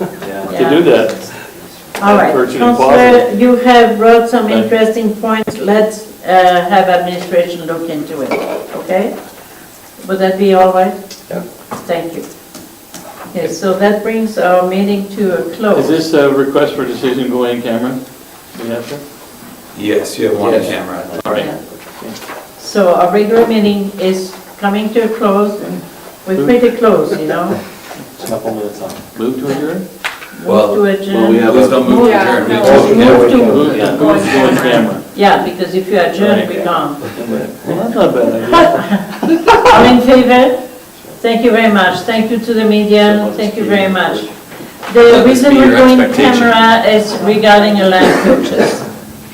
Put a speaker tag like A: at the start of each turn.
A: to do that.
B: All right,
A: Virtually
B: Counselor,
A: positive.
B: you have brought some
A: Thank you.
B: interesting points. Let's uh, have administration look into it, okay? Would that be all right?
A: Yeah.
B: Thank you. Okay, so that brings our meeting to a
A: Is
B: close.
A: this a request for decision going in camera? We have to?
C: Yes, you have one
A: Yes.
C: camera. All right.
B: So our regular meeting is coming to a close. We're pretty close, you know?
D: couple minutes on.
A: Move to adjourn?
C: Well,
B: Move to
D: well, we
B: adjourn.
D: have-
C: Please don't move
E: Yeah,
C: the
E: no.
C: chair.
B: Move to,
A: Move, yeah, move to go in camera.
B: yeah, because if you adjourn, we can't.
A: Well, that's not a bad idea.
B: All in favor? Thank you very much. Thank you to the media. Thank you very much. The
C: Let this
B: reason
C: be
B: we're
C: your
B: going
C: expectation.
B: camera is regarding a land purchase.